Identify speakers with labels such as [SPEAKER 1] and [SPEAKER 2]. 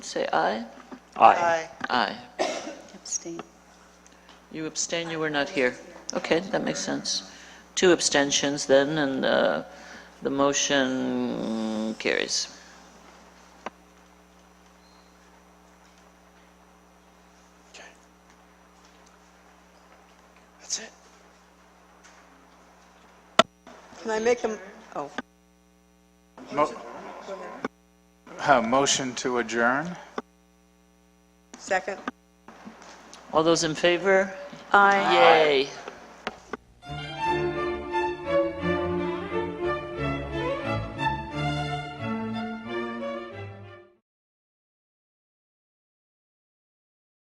[SPEAKER 1] Say aye.
[SPEAKER 2] Aye.
[SPEAKER 1] Aye.
[SPEAKER 3] Abstain.
[SPEAKER 1] You abstain, you were not here. Okay, that makes sense. Two abstentions then, and uh, the motion carries.
[SPEAKER 2] Okay. That's it.
[SPEAKER 3] Can I make them, oh,
[SPEAKER 4] Mo- Uh, Motion to adjourn?
[SPEAKER 3] second?
[SPEAKER 1] All those in favor?
[SPEAKER 3] Aye.
[SPEAKER 1] Yay.